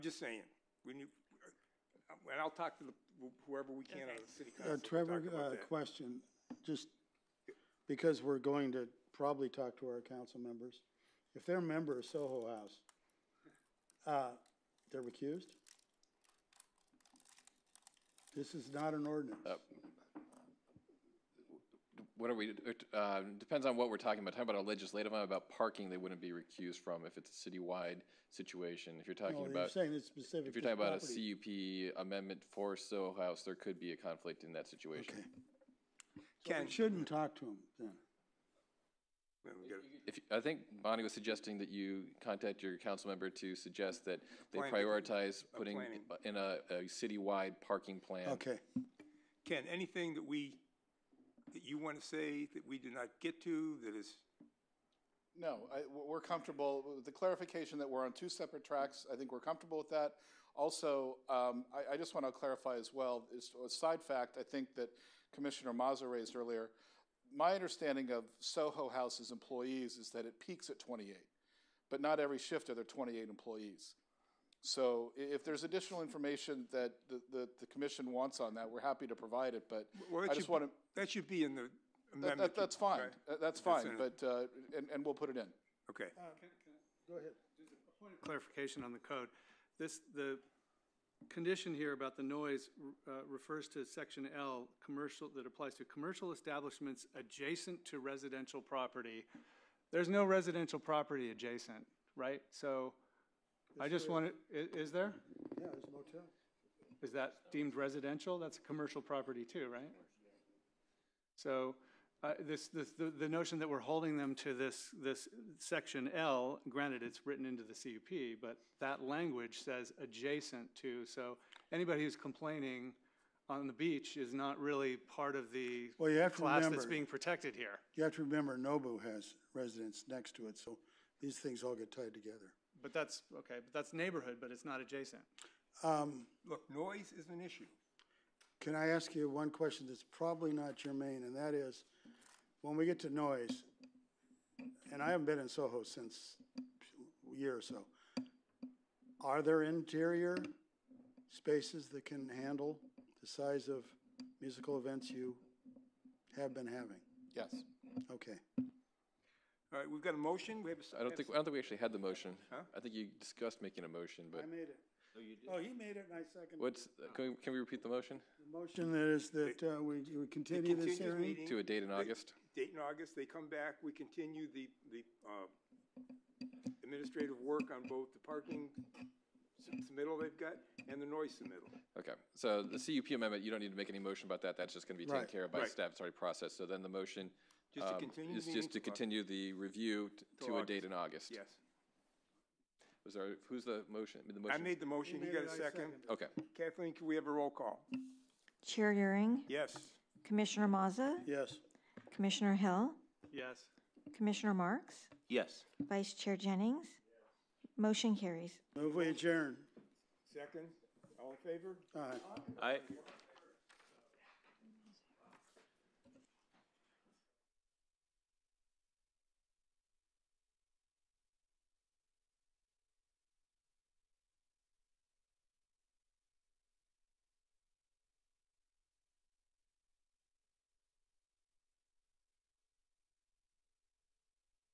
Just saying, when you, and I'll talk to the- whoever we can out of the city Uh, council. to talk about Trevor, uh, that. question, just because we're going to probably talk to our council members. If they're a member of Soho House, uh, they're recused? This is not an Uh, ordinance. What are we, it, uh, depends on what we're talking about. Talking about a legislative, one, about parking, they wouldn't be recused from if it's a citywide situation. If you're talking No, you're about, saying it's specific. if you're to the talking about a property. CUP amendment for Soho House, there could be a conflict in that situation. So we shouldn't talk to them then. Then we gotta- If, I think Bonnie was suggesting that you contact your council member to suggest that they Planning. prioritize putting planning. in a, a citywide parking plan. Okay, Ken, anything that we, that you want to say that we did not get to, that is, No, I, we're we're comfortable with the clarification that we're on two separate tracks. I think we're comfortable with that. Also, um, I, I just want to clarify as well, is a side fact, I think that Commissioner Mazza raised earlier. My understanding of Soho House's employees is that it peaks at twenty-eight, but not every shift are there twenty-eight employees. So i- if there's additional information that the, the, the commission wants on that, we're happy to provide it, but well, I that just want should, to, that should be in the that, amendment. that- that's fine, right? That- that's in fine, it. but, uh, and, and we'll put it in. Okay, Um, go ahead. Point of clarification on the code. This, the condition here about the noise uh, refers to section L, commercial, that applies to commercial establishments adjacent to residential property. There's no residential property adjacent, right? So I just wanted, i- is there? Yeah, it's motel. Is that deemed residential? That's a commercial property too, right? So, uh, this, this, the, the notion that we're holding them to this, this section L, granted, it's written into the CUP, but that language says adjacent to, so anybody who's complaining on the beach is not really part of the Well, you have to class that's remember- being protected here. You have to remember Nobu has residents next to it, so these things all get tied together. But that's, okay, but that's neighborhood, but it's not adjacent. Um, look, noise is an issue. Can I ask you one question that's probably not germane, and that is, when we get to noise, and I haven't been in Soho since a year or so, are there interior spaces that can handle the size of musical events you have been having? Yes. Okay. All right, we've got a motion, we have a. s- I don't think, I don't think we actually had the motion. I think you discussed making a motion, but made it. Oh, you did? Oh, he made it, and I seconded. what's, can we- can we repeat the motion? The motion that is that uh, we we continue Continue this the hearing? meeting. To a date in August? date in August, they come back, we continue the, the uh, administrative work on both the parking s- submittal they've got and the noise submittal. Okay, so the CUP amendment, you don't need to make any motion about that, that's just gonna be taken Right, care of by Mm-hmm. right. staff, it's already processed, so then the motion Just to um, continue the is meeting just to to August. continue the review t- to a August. date in August. Yes. Was there, who's the motion, the I motion? made the motion, you got a second? Okay, Kathleen, can we have a roll call? Chair Euring, Yes. Commissioner Mazza, Yes. Commissioner Hill, Yes. Commissioner Marks, Yes. Vice Chair Jennings. Motion carries. Move we adjourn. Second, all in favor? All right. I,